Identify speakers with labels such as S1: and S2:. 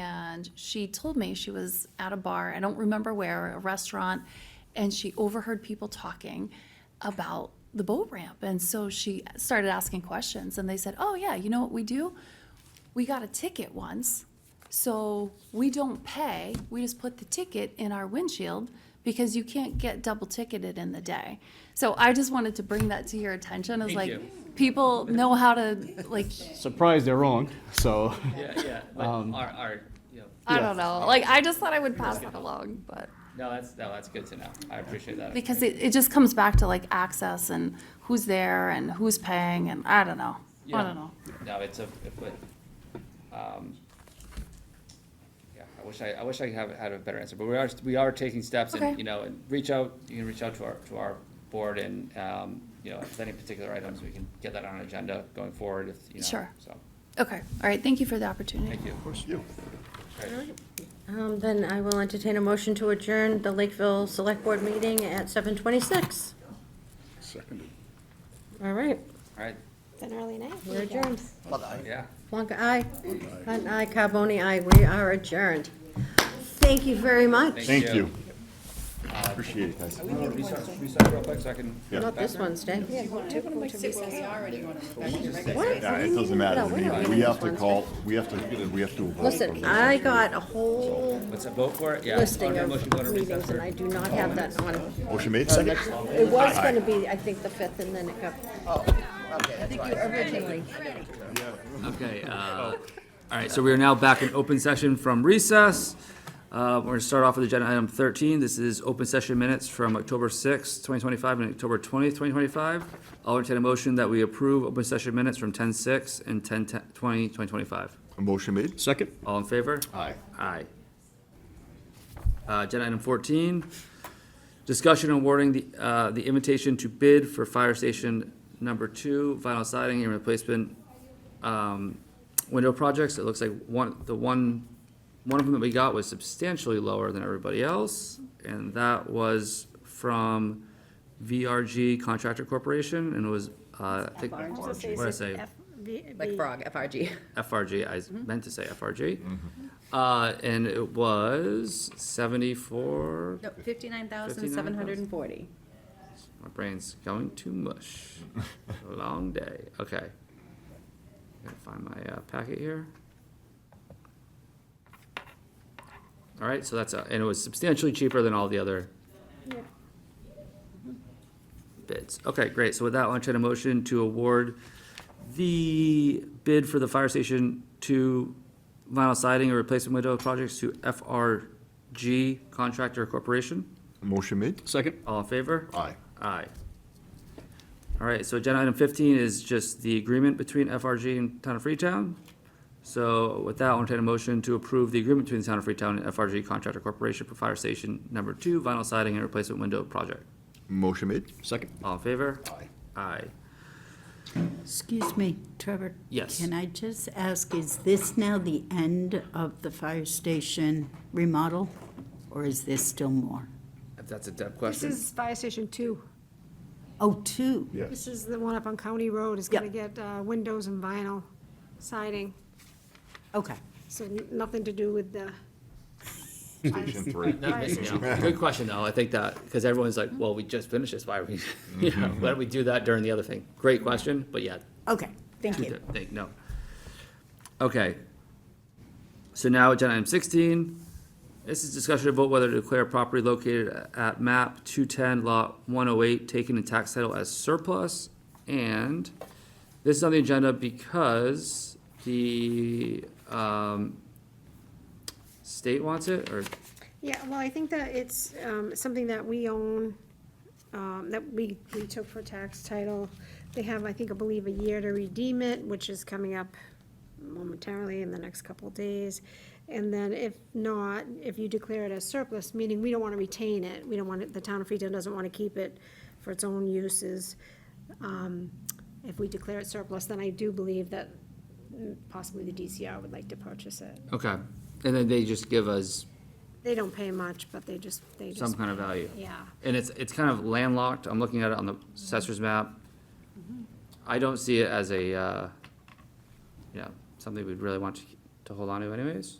S1: and she told me she was at a bar, I don't remember where, a restaurant, and she overheard people talking about the boat ramp. And so she started asking questions, and they said, Oh, yeah, you know what we do? We got a ticket once, so we don't pay. We just put the ticket in our windshield because you can't get double ticketed in the day. So I just wanted to bring that to your attention as
S2: Thank
S1: like,
S2: you.
S1: people know how to, like,
S3: Surprised they're wrong, so.
S2: Yeah, yeah, but our, our, you know,
S1: I
S3: Yeah.
S1: don't know. Like, I just thought I would pass that along, but.
S2: no, that's, no, that's good to know. I appreciate that.
S1: Because it, it just comes back to like access and who's there and who's paying and I don't know. I
S2: Yeah.
S1: don't know.
S2: No, it's a, it would, um, yeah, I wish I, I wish I have had a better answer, but we are, we are taking steps
S1: Okay.
S2: and, you know, and reach out, you can reach out to our, to our board and, um, you know, if any particular items, we can get that on an agenda going forward if, you know.
S1: Sure.
S2: So,
S1: Okay, all right, thank you for the opportunity.
S2: thank you. Of course.
S4: Um, Then I will entertain a motion to adjourn the Lakeville Select Board meeting at 7:26.
S5: Seconded.
S4: All right,
S2: All right,
S6: Been an early night.
S4: we're adjourned.
S2: yeah.
S4: Plonka, aye. Hunt, aye. Carboni, aye. We are adjourned. Thank you very much.
S2: Thank
S5: Thank
S2: you. Uh,
S5: you. Appreciate it, guys.
S2: Reset, reset real quick so I can.
S4: Not this Wednesday.
S5: Yeah, it doesn't matter to me. We have to call, we have to, we have to vote.
S4: Listen, I got a whole
S2: What's that, vote for it? Yeah.
S4: listing
S2: Okay,
S4: of
S2: motion, go to recess
S4: meetings,
S2: for-
S4: and I do not have that on.
S5: Motion made, second?
S4: It was going to be, I think, the 5th, and then it got. Oh, okay, that's Originally.
S2: Okay, uh, all right, so we are now back in open session from recess. Uh, We're going to start off with agenda item 13. This is open session minutes from October 6th, 2025, and October 20th, 2025. I'll entertain a motion that we approve open session minutes from 10:06 and 10:20, 2025.
S5: Motion made?
S3: Second?
S2: All in favor?
S5: Aye.
S2: Aye. Uh, Agenda item 14, discussion awarding the uh, the invitation to bid for fire station number two, vinyl siding and replacement um, window projects. It looks like one, the one, one of them that we got was substantially lower than everybody else, and that was from VRG Contractor Corporation, and it was, uh, I think, what did I say?
S7: Like frog, FRG.
S2: FRG, I s- meant to say FRG. Uh, and it was seventy-four,
S7: No, fifty-nine thousand, seven hundred and forty.
S2: my brain's going to mush. Long day, okay. Gotta find my, uh, packet here. All right, so that's, uh, and it was substantially cheaper than all the other bids. Okay, great, so with that, I'll entertain a motion to award the bid for the fire station to vinyl siding and replacement window projects to FRG Contractor Corporation.
S5: Motion made?
S3: Second?
S2: All in favor?
S5: Aye.
S2: Aye. All right, so agenda item fifteen is just the agreement between FRG and Town of Freetown. So with that, I'll entertain a motion to approve the agreement between the Town of Freetown and FRG Contractor Corporation for Fire Station Number Two Vinyl Siding and Replacement Window Project.
S5: Motion made?
S3: Second.
S2: All in favor?
S5: Aye.
S2: Aye.
S8: Excuse me, Trevor.
S2: Yes.
S8: Can I just ask, is this now the end of the fire station remodel, or is there still more?
S2: If that's a Deb
S6: This
S2: question.
S6: is Fire Station Two.
S8: Oh, two.
S6: This is the one up on County Road. It's gonna
S8: Yep.
S6: get uh, windows and vinyl siding,
S8: Okay.
S6: so n- nothing to do with the.
S5: Station three.
S2: Good question, though. I think that, because everyone's like, well, we just finished this, why are we, you know, why don't we do that during the other thing? Great question, but yeah,
S8: Okay, thank
S2: Two
S8: you.
S2: di- thing, no. Okay. So now agenda item sixteen, this is discussion about whether to declare property located at map two-ten lot one-oh-eight taken in tax title as surplus. And this is on the agenda because the, um, state wants it, or,
S6: Yeah, well, I think that it's um, something that we own, um, that we, we took for tax title. They have, I think, I believe, a year to redeem it, which is coming up momentarily in the next couple of days. And then if not, if you declare it as surplus, meaning we don't want to retain it, we don't want it, the town of Freetown doesn't want to keep it for its own uses. um, If we declare it surplus, then I do believe that mm, possibly the DCR would like to purchase it.
S2: okay, and then they just give us
S6: They don't pay much, but they just, they just.
S2: some kind of value.
S6: Yeah.
S2: And it's, it's kind of landlocked, I'm looking at it on the assessor's map. I don't see it as a, uh, you know, something we'd really want to, to hold on to anyways.